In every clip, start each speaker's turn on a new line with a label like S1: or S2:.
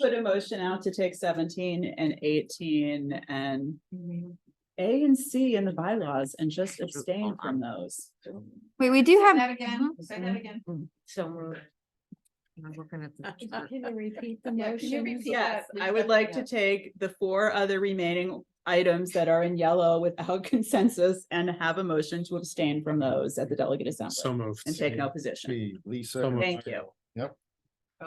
S1: Put a motion out to take seventeen and eighteen and A and C in the bylaws and just abstain from those.
S2: Wait, we do have, Mhm.
S3: That again, say that again.
S4: So we're. I'm looking at the.
S3: you repeat the
S4: Yeah, can you
S3: motion?
S4: repeat
S1: Yes, I would like to take the four other remaining items that are in yellow without consensus and have a motion to abstain from those at the delegate
S5: So
S1: assembly
S5: moved.
S1: and take no position.
S6: Gee, Lisa.
S5: So moved.
S1: Thank you.
S6: Yep.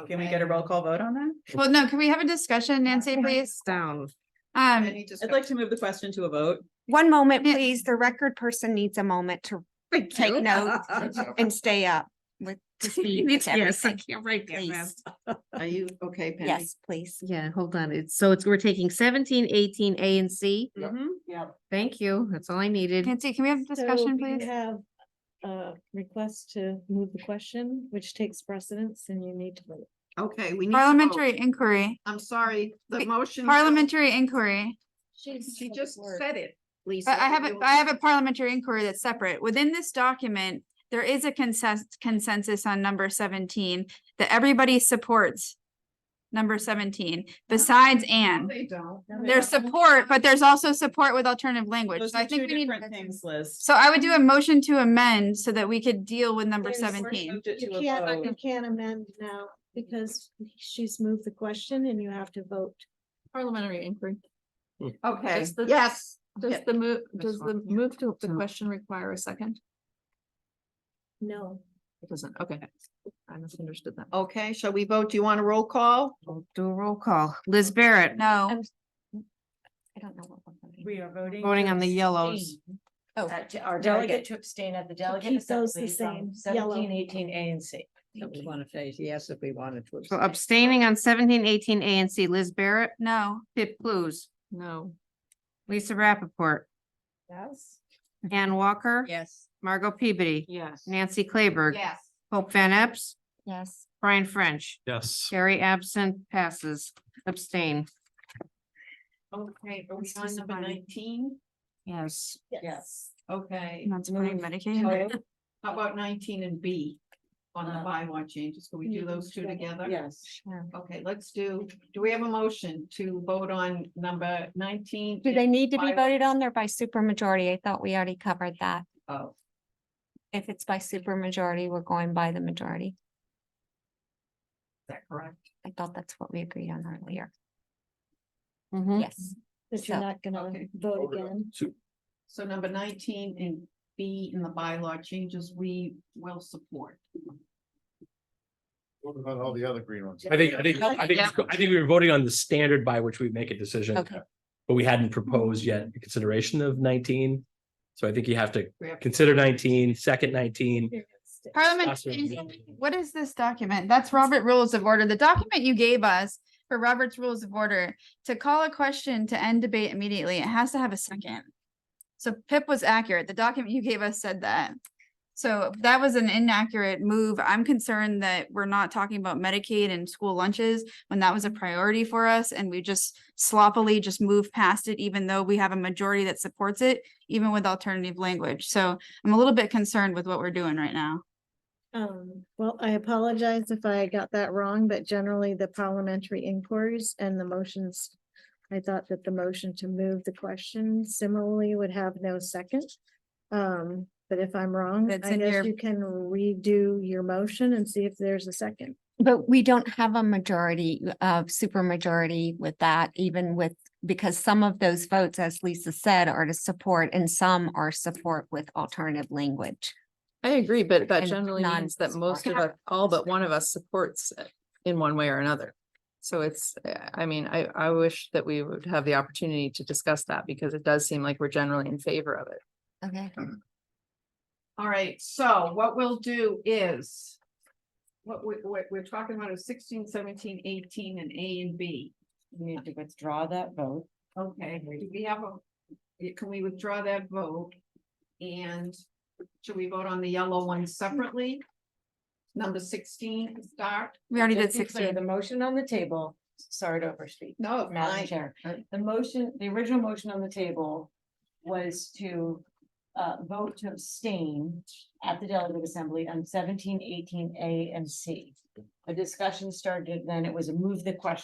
S1: Can we get a roll call vote on that?
S2: well, no, can we have a discussion, Nancy, please?
S4: Down.
S2: Um,
S3: Any
S1: I'd
S3: discussion?
S1: like to move the question to a vote.
S7: One moment,
S2: Yeah.
S7: please. The record person needs a moment to
S4: you.
S7: take notes and stay up with to speed with
S4: Yes, I
S7: everything.
S4: can't write that
S7: Please.
S4: fast.
S3: Are you okay, Penny?
S7: Yes, please.
S4: Yeah, hold on. It's, so it's, we're taking seventeen, eighteen, A and C.
S6: Yep.
S3: Yeah.
S4: Thank you. That's all I needed.
S2: Nancy, can we have a discussion, please?
S8: Have a request to move the question, which takes precedence and you need to vote.
S3: Okay, we need. to vote.
S2: Parliamentary inquiry,
S3: I'm sorry, the
S2: Wait,
S3: motion.
S2: parliamentary inquiry.
S3: She just said it, Lisa.
S2: I, I have
S3: You-
S2: a, I have a parliamentary inquiry that's separate. Within this document, there is a consensus, consensus on number seventeen that everybody supports. Number seventeen, besides
S3: No,
S2: Anne.
S3: They don't.
S2: There's support, but there's also support with alternative language.
S1: Those
S2: So I
S1: are
S2: think
S1: two
S2: we need.
S1: different things, Liz.
S2: So I would do a motion to amend so that we could deal with number
S8: There's-
S2: seventeen.
S1: Moved it
S8: You
S1: to a
S8: can't, uh,
S1: vote.
S8: you can't amend now because she's moved the question and you have to vote.
S9: Parliamentary inquiry.
S3: Okay,
S9: Just the-
S3: yes.
S9: Does
S3: Yeah.
S9: the move,
S4: This
S9: does the
S4: one, yeah.
S9: move to the
S4: So-
S9: question require a second?
S8: No.
S9: It doesn't, okay. I misunderstood that.
S3: Okay, shall we vote? Do you want a roll call?
S4: We'll Do a roll call. Liz Barrett,
S2: No,
S9: I'm- I don't know what. one I'm doing.
S1: We are voting.
S4: voting on the yellows.
S7: Oh,
S4: Our
S7: delegate
S4: to abstain at the
S8: keep those the same, yellow.
S4: eighteen, A and C.
S7: we
S4: want to say yes if we wanted to. So abstaining on seventeen, eighteen, A and C. Liz Barrett,
S2: no.
S4: Pip Blues,
S9: No,
S4: Lisa Rappaport,
S8: Yes.
S4: Ann Walker.
S7: Yes.
S4: Margot Peabody,
S9: yes.
S4: Nancy Claiberg.
S3: Yes.
S4: Hope Van Epps,
S7: Yes.
S4: Brian French,
S5: Yes.
S4: Carrie absent, passes, abstain.
S3: Okay, are we
S4: Let's do
S3: on number
S4: somebody.
S3: nineteen?
S4: Yes.
S8: Yes.
S3: Okay.
S2: That's pretty
S3: move
S2: medicated.
S3: to- How about nineteen and B on the bylaw changes? Can we do
S8: Mhm.
S3: those two together?
S8: Yes.
S3: Okay, let's do, do we have a motion to vote on number nineteen?
S7: Do they need to be
S3: Bylaw.
S7: voted on there by supermajority? I thought we already covered that.
S3: Oh,
S7: If it's by supermajority, we're going by the majority.
S3: is that correct?
S7: I thought that's what we agreed on earlier.
S4: Mhm.
S7: Yes.
S8: That you're
S7: So-
S8: not gonna
S3: Okay.
S8: vote again.
S3: So number nineteen and B in the bylaw changes, we will support.
S6: What about all the other green ones?
S5: I think, I think, I think,
S4: Yeah.
S5: I think we were voting on the standard by which we make a decision.
S7: Okay.
S5: But we hadn't proposed yet the consideration of nineteen. So I think you have to
S3: We have to-
S5: consider nineteen, second nineteen.
S2: Parliamentary, what is this document? That's Robert Rules of Order. The document you gave us for Robert's Rules of Order to call a question to end debate immediately, it has to have a second. So Pip was accurate. The document you gave us said that. So that was an inaccurate move. I'm concerned that we're not talking about Medicaid and school lunches when that was a priority for us and we just sloppily just move past it, even though we have a majority that supports it, even with alternative language. So I'm a little bit concerned with what we're doing right now.
S8: Um, well, I apologize if I got that wrong, but generally the parliamentary inquiries and the motions. I thought that the motion to move the question similarly would have no second. Um, but if I'm wrong, I
S2: That's in your-
S8: guess you can redo your motion and see if there's a second.
S7: But we don't have a majority of supermajority with that, even with, because some of those votes, as Lisa said, are to support and some are support with alternative language.
S9: I agree, but that
S7: And
S9: generally
S7: none
S9: means that most of
S7: support.
S9: us, all but one of us supports it in one way or another. So it's, uh, I mean, I, I wish that we would have the opportunity to discuss that because it does seem like we're generally in favor of it.
S7: Okay.
S3: All right, so what we'll do is. What we, what we're talking about is 16, 17, 18, and A and B. We need to withdraw that vote. Okay, do we have a, can we withdraw that vote? And should we vote on the yellow one separately? Number sixteen to start?
S2: We already did
S10: Just to be clear,
S2: sixteen.
S10: The motion on the table, sorry to overspeak,
S3: No,
S10: Madam
S3: I,
S10: Chair.
S3: uh,
S10: The motion, the original motion on the table was to uh vote to abstain at the delegate assembly on seventeen, eighteen, A and C. A discussion started, then it was a move the question